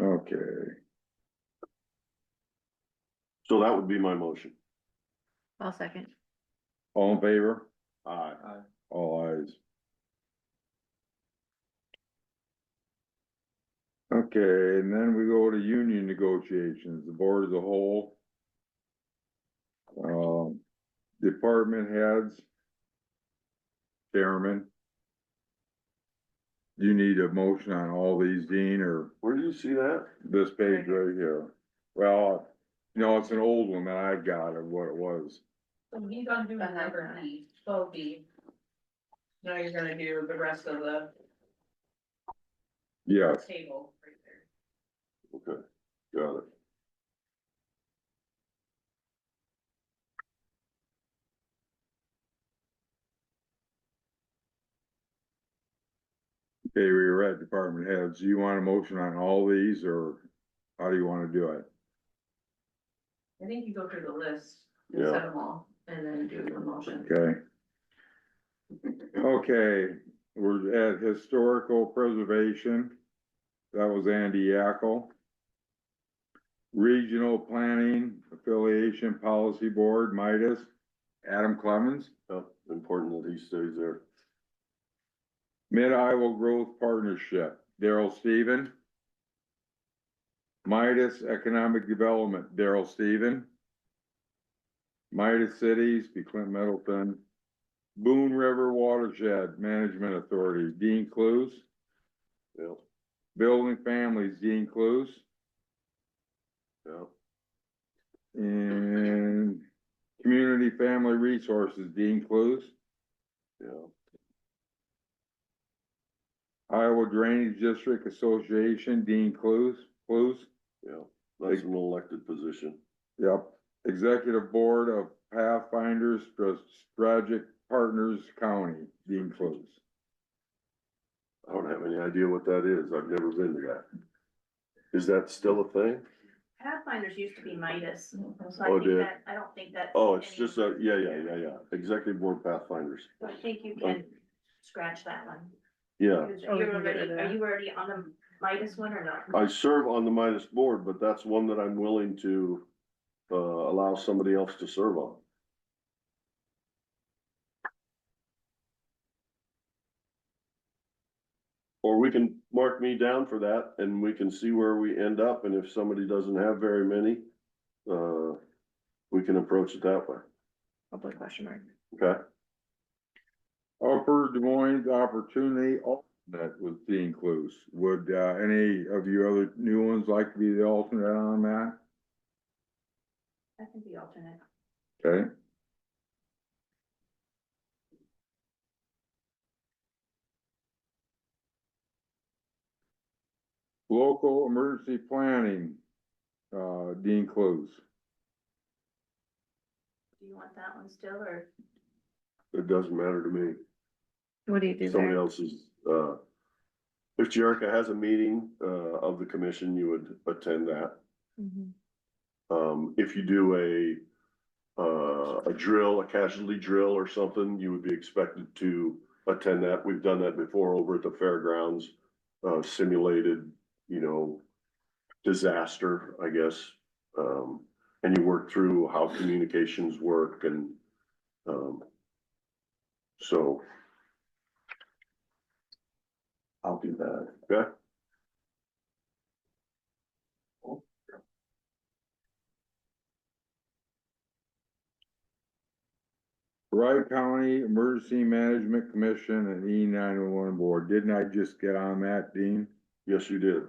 Okay. So that would be my motion. I'll second. All in favor? Aye. All eyes. Okay, and then we go to union negotiations, the board as a whole. Um, department heads. Chairman. You need a motion on all these, Dean, or Where do you see that? this page right here? Well, you know, it's an old one that I got of what it was. So he's gonna do number B, twelve B. Now you're gonna do the rest of the Yes, table right there. Okay, got it. Okay, we were at department heads. Do you want a motion on all these or how do you wanna do it? I think you go through the list, and Yeah. set them all, and then do your motion. Okay. Okay, we're at historical preservation. That was Andy Yackel. Regional Planning Affiliation Policy Board, Midas, Adam Clemens. Yep, Oh, important that he stays there. Mid Iowa Growth Partnership, Daryl Steven. Midas Economic Development, Daryl Steven. Midas Cities, be Clint Middleton. Boone River Watershed Management Authority, Dean Clues. Yep, Building Families, Dean Clues. yep, And Community Family Resources, Dean Clues. yep, Iowa Drainage District Association, Dean Clues, Clues. yep. That's an elected position. Yep, Executive Board of Pathfinders Stra- Strategic Partners County, Dean Close. I don't have any idea what that is. I've never been to that. Is that still a thing? Pathfinders used to be Midas, so Oh, did I think it? that, I don't think that's. Oh, it's just any- a, yeah, yeah, yeah, yeah. Executive Board Pathfinders. I think you can scratch that one. Yeah, Because Oh, you're you can get rid already, of are that. you already on the Midas one or not? I serve on the Midas Board, but that's one that I'm willing to uh, allow somebody else to serve on. Or we can mark me down for that and we can see where we end up and if somebody doesn't have very many, uh, we can approach it that way, Public question mark. okay? Upper Des Moines Opportunity Alternate was Dean Close. Would, uh, any of you other new ones like to be the alternate on that? I can be alternate. Okay, Local Emergency Planning, uh, Dean Close. Do you want that one still, or It doesn't matter to me. What do you do somebody there? else's, uh, if Jerrica has a meeting, uh, of the commission, you would attend that. Mhm. Um, if you do a, uh, a drill, a casualty drill or something, you would be expected to attend that. We've done that before over at the fairgrounds, uh, simulated, you know, disaster, I guess. Um, and you work through how communications work and, um, so I'll do that. Okay. Wright County Emergency Management Commission and E nine one one board. Didn't I just get on that, Dean? Yes, you did.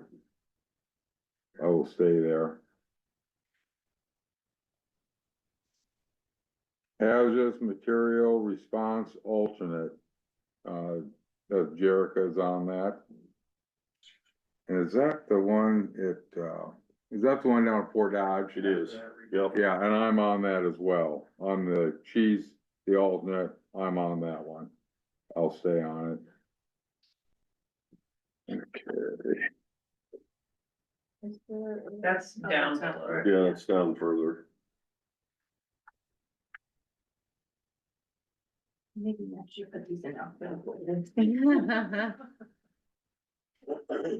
I will stay there. Hazardous Material Response Alternate. Uh, that Jerrica's on that. And is that the one at, uh, is that the one down at Fort Dodge? It is. Yep. Yeah, and I'm on that as well. I'm the cheese, the alternate, I'm on that one. I'll stay on it. Okay, is there? That's Oh, down that's below. Yeah, it's down further. Mm-hmm. Maybe I should put these in alphabetical. order.